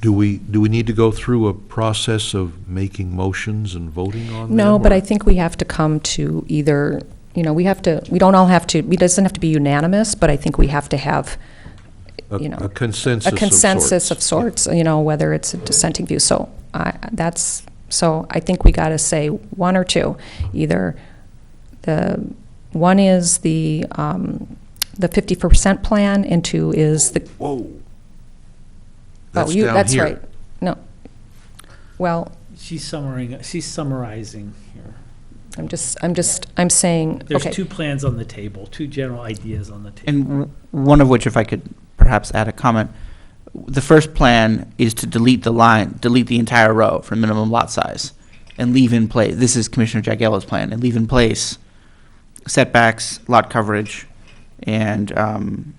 Do we, do we need to go through a process of making motions and voting on them? No, but or- I think we have to come to either, you know, we have to, we don't all have to, it doesn't have to be unanimous, but I think we have to have, a- you know, A consensus a of consensus of sorts. sorts, you know, whether it's a dissenting view. So I, that's, so I think we got to say one or two. Either the, one is the, um, the 50% plan and two is the, Whoa. oh, That's you, down that's here. right. No. Well, She's summarizing, she's summarizing here. I'm just, I'm just, I'm saying, There's okay. two plans on the table, two general ideas on the table. And w- one of which, if I could perhaps add a comment, the first plan is to delete the line, delete the entire row for minimum lot size and leave in place, this is Commissioner Jagiello's plan, and leave in place setbacks, lot coverage, and um,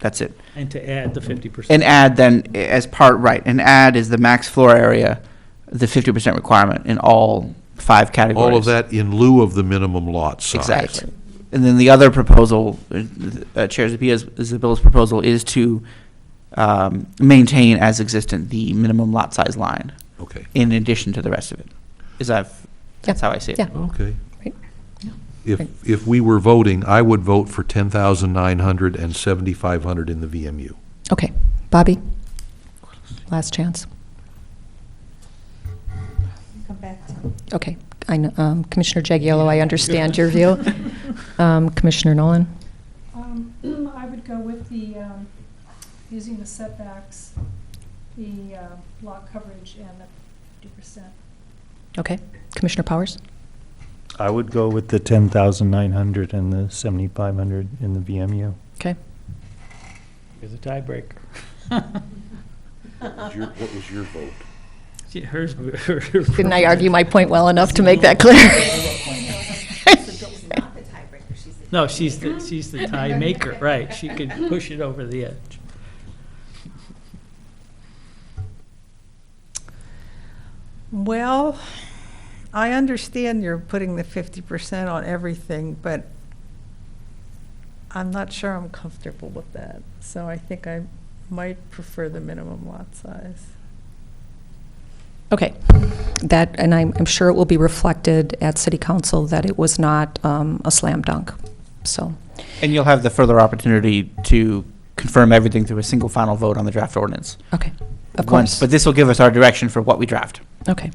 that's it. And to add the 50%. And add then, i- as part, right, and add is the max floor area, the 50% requirement in all five categories. All of that in lieu of the minimum lot size. Exactly. And then the other proposal, uh, uh, Chair Zabia's, Zabilla's proposal is to um, maintain as existent the minimum lot size line Okay, in addition to the rest of it. Is that, that's how I see it. Yeah. okay. Right. Right. If, if we were voting, I would vote for 10,900 and 7,500 in the VMU. Okay, Bobby, last chance. Okay, I, kn- um, Commissioner Jagiello, I understand your view. Um, Commissioner Nolan? Um, I would go with the, um, using the setbacks, the uh, lot coverage, and the fifty percent. Okay, Commissioner Powers? I would go with the ten thousand nine hundred and the seventy-five hundred in the VMU. Okay, There's a tiebreaker. What was your vote? She- Hers. didn't I argue my point well enough to make that clear? She's not the tiebreaker, she's the. No, she's the, she's the tie maker, right. She could push it over the edge. Well, I understand you're putting the fifty percent on everything, but I'm not sure I'm comfortable with that. So I think I might prefer the minimum lot size. Okay, that, and I'm, I'm sure it will be reflected at City Council that it was not um, a slam dunk, so. And you'll have the further opportunity to confirm everything through a single final vote on the draft ordinance. Okay, of Once- course. But this will give us our direction for what we draft. Okay,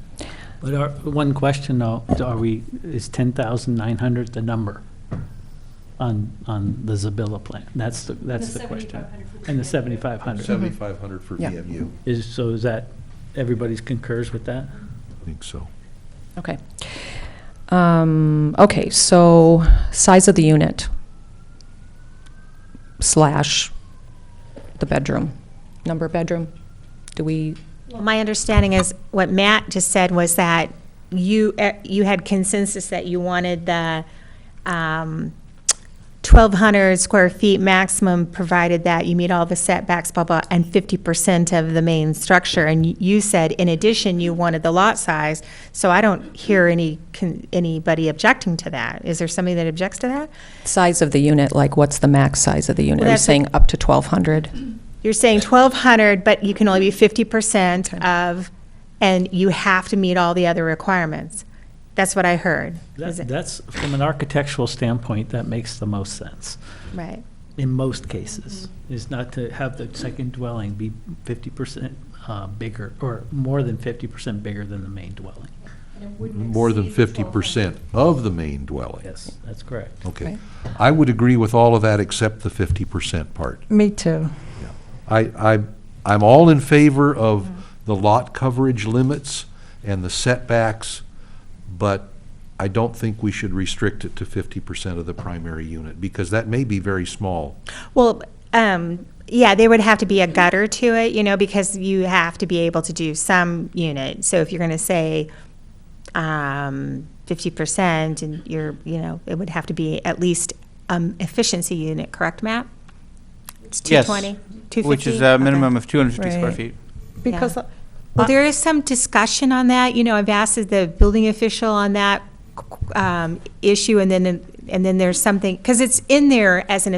But our, one question though, are we, is 10,900 the number on, on the Zabilla plan? That's the, that's the question. And the 7,500. 7,500 for Yeah. VMU. Is, so is that, everybody's concurs with that? I think so. okay. Um, Okay, so size of the unit slash the bedroom, number of bedroom? Do we, Well, My understanding is, what Matt just said was that you, eh, you had consensus that you wanted the um, 1,200 square feet maximum, provided that you meet all the setbacks, blah, blah, and 50% of the main structure. And y- you said, in addition, you wanted the lot size, so I don't hear any, con- anybody objecting to that. Is there somebody that objects to that? size of the unit, like what's the max size of the unit? Well, Are you that's a- saying up to 1,200? You're saying twelve hundred, but you can only be fifty percent of, and you have to meet all the other requirements. That's what I heard. Is That- it- That's, from an architectural standpoint, that makes the most sense, Right. in most cases, is not to have the second dwelling be fifty percent uh, bigger, or more than fifty percent bigger than the main dwelling. More than 50% of the main dwelling. Yes, that's correct. Okay. Right. I would agree with all of that except the 50% part. Me too. I, I, I'm all in favor of the lot coverage limits and the setbacks, but I don't think we should restrict it to fifty percent of the primary unit, because that may be very small. Well, um, yeah, there would have to be a gutter to it, you know, because you have to be able to do some unit. So if you're gonna say, um, fifty percent and you're, you know, it would have to be at least, um, efficiency unit, correct, Matt? It's two Yes, twenty, two fifty? Which is a minimum of 250 square Right. feet. Because Yeah. Well, I- there is some discussion on that, you know, I've asked the building official on that um, issue, and then, and then there's something, because it's in there as an